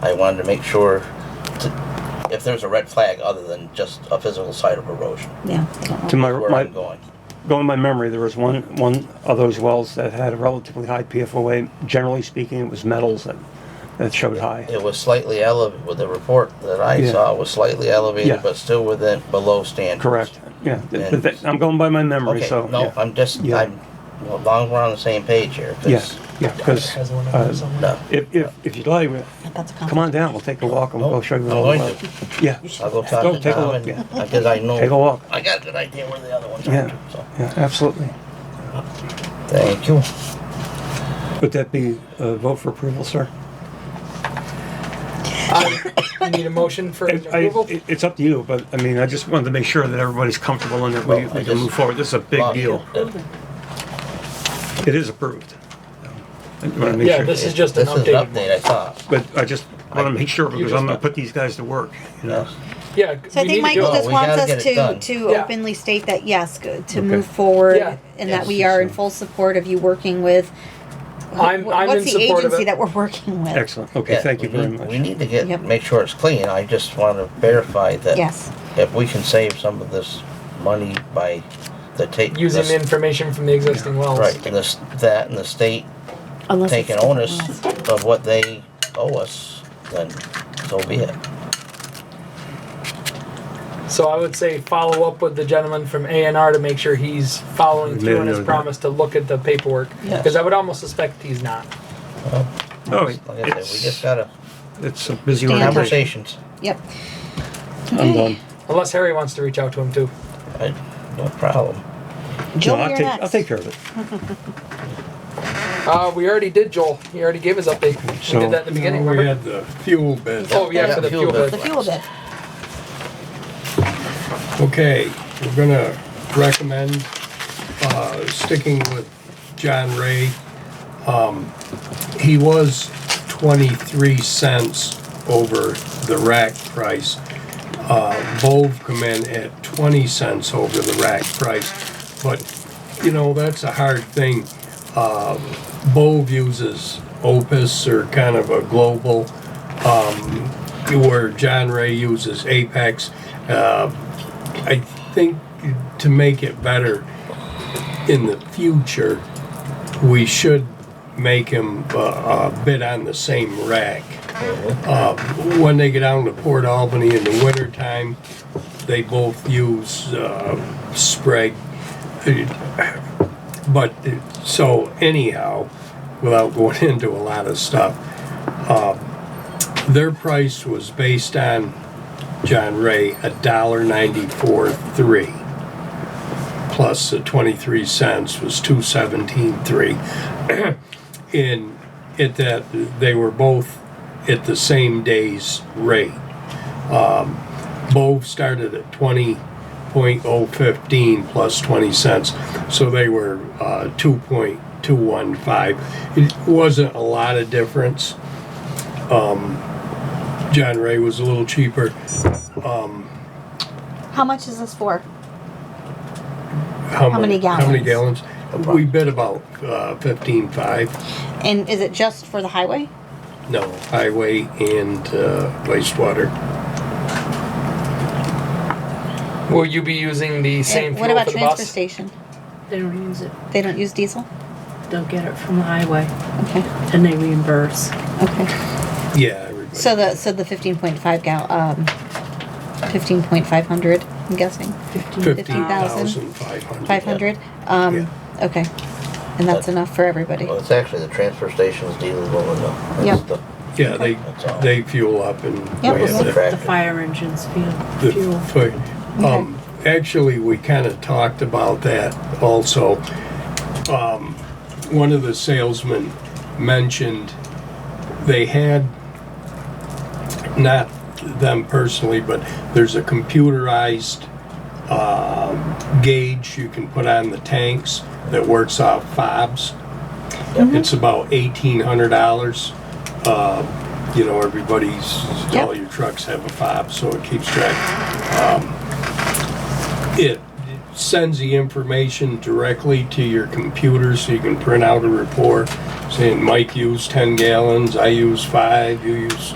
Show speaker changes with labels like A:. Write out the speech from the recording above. A: I wanted to make sure to, if there's a red flag other than just a physical side of erosion,
B: yeah.
C: To my,
A: where
C: my,
A: I'm going.
C: going by memory, there was one, one of those wells that had a relatively high PFOA. Generally speaking, it was metals that, that showed high.
A: It was slightly elevated, with the report that I
C: Yeah.
A: saw was slightly elevated,
C: Yeah.
A: but still within, below standards.
C: Correct, yeah. th-
A: And-
C: th- I'm going by my memory,
A: Okay,
C: so.
A: no,
C: yeah.
A: I'm just,
C: Yeah.
A: I'm, well, as long as we're on the same page here. 'cause-
C: Yes, yeah, because
D: Has one
C: Uh,
D: on there somewhere?
A: No,
C: if, if, if you'd like, we-
B: About to come.
C: come on down, we'll take a walk and
A: Oh,
C: we'll show you.
A: I'm
C: all the
A: going
C: wells.
A: to.
C: Yeah,
A: I'll go talk
C: Go
A: to
C: take a
A: Tom
C: look,
A: and,
C: yeah.
A: because I know.
C: Take a walk.
A: I got a good idea where the other ones are,
C: yeah,
A: so,
C: yeah, absolutely.
A: thank you.
C: Would that be a vote for approval, sir?
D: You need a motion for
C: It- I-
D: approval?
C: it- It's up to you, but I mean, I just wanted to make sure that everybody's comfortable and that we
A: Well, I
C: we can
A: just-
C: move forward. This is a big
A: Bob,
C: deal.
A: uh,
C: It is approved. I want to make
D: Yeah,
C: sure.
D: this is just an
A: This is an update,
D: update.
A: I thought.
C: But I just want to make sure because
D: just-
C: I'm going to put these guys to work, you know?
D: Yeah,
B: So I
D: we need
B: think
D: to
B: Michael
D: do it.
B: just
A: we
B: wants
A: gotta get
B: us
A: it done.
B: to, to
D: Yeah.
B: openly state that, yes, good, to
C: Okay.
B: move forward,
D: Yeah.
B: and that we
C: Yes.
B: are in full support of you working with.
D: I'm-
B: wh-
D: I'm
B: What's
D: in
B: the
D: support of
B: agency
D: it.
B: that we're working with?
C: Excellent. Okay,
A: Yeah,
C: thank you
A: we
C: very
A: need- We
C: much.
A: need to
B: Yep.
A: get, make sure it's clean, I just want to verify that.
B: Yes,
A: If we can save some of this money by the take.
D: Using
A: this-
D: information from the existing wells.
A: Right, and this, that and the state
B: unless it's
A: taking
B: different
A: onus
B: ones.
A: of what they owe us, then so be it.
D: So I would say follow up with the gentleman from A and R to make sure he's following
C: Maybe
D: through on his
C: not.
D: promise to look at the paperwork.
A: Yes.
D: Because I would almost suspect he's not.
C: Oh,
A: Like I said, we just
C: it's,
A: gotta,
C: it's a busy
B: Stand up.
C: organization.
A: conversations,
B: Yep.
C: I'm done.
D: Unless Harry wants to reach out to him too.
A: I, no problem.
B: Joel,
C: No, I'll
B: you're
C: take- I'll
B: next.
C: take care of it.
D: Uh, we already did Joel. He already gave his update.
C: So-
D: we did that in the beginning.
E: We
D: remember?
E: had the fuel bid.
D: Oh yeah,
A: Yeah,
D: for the
A: fuel
D: fuel
A: bill.
D: bid.
B: The fuel bid.
E: Okay, we're gonna recommend, uh, sticking with John Ray. Um, He was twenty-three cents over the rack price. Uh, Bove come in at twenty cents over the rack price, but, you know, that's a hard thing. Uh, Bove uses Opus or kind of a global, um, where John Ray uses Apex. Uh, I think to make it better in the future, we should make him uh, uh, bid on the same rack. Uh, when they get down to Port Albany in the wintertime, they both use uh, Sprague. But so anyhow, without going into a lot of stuff, uh, their price was based on John Ray, a dollar ninety-four three. Plus the twenty-three cents was two seventeen three. And at that, they were both at the same day's rate. Um, both started at twenty point oh fifteen plus twenty cents, so they were, uh, two point two one five. It wasn't a lot of difference. Um, John Ray was a little cheaper.
B: How much is this for?
E: How
B: How
E: many,
B: many
E: how many
B: gallons?
E: gallons? We bid about uh, fifteen five,
B: And is it just for the highway?
E: no, highway and uh, wastewater.
D: Will you be using the same
B: And What
D: fuel
B: about
D: for the
B: transfer
D: bus?
B: station?
F: They don't use it.
B: They don't use diesel?
F: They'll get it from the highway
B: Okay,
F: and they reimburse.
B: okay.
E: Yeah, everybody.
B: So the, so the fifteen point five gal, um, fifteen point five hundred, I'm guessing,
E: Fifteen
B: 15,000.
E: thousand five hundred.
B: five hundred? Um, okay. And that's enough for everybody?
A: Well, it's actually the transfer station's dealing with it. though. That's
B: Yep.
A: the-
E: Yeah, they,
A: That's all.
E: they fuel up and.
B: Yep.
E: we have
A: the
E: to-
F: The
A: tractor.
F: fire engines fuel.
E: the
F: fuel.
E: foot. Um, actually, we kind of talked about that also. Um, one of the salesmen mentioned they had, not them personally, but there's a computerized um gauge you can put on the tanks that works off fobs. It's about eighteen hundred dollars. Uh, you know, everybody's,
B: Yep.
E: all your trucks have a fob, so it keeps track. Um, It sends the information directly to your computer, so you can print out a report saying Mike used ten gallons, I used five, you used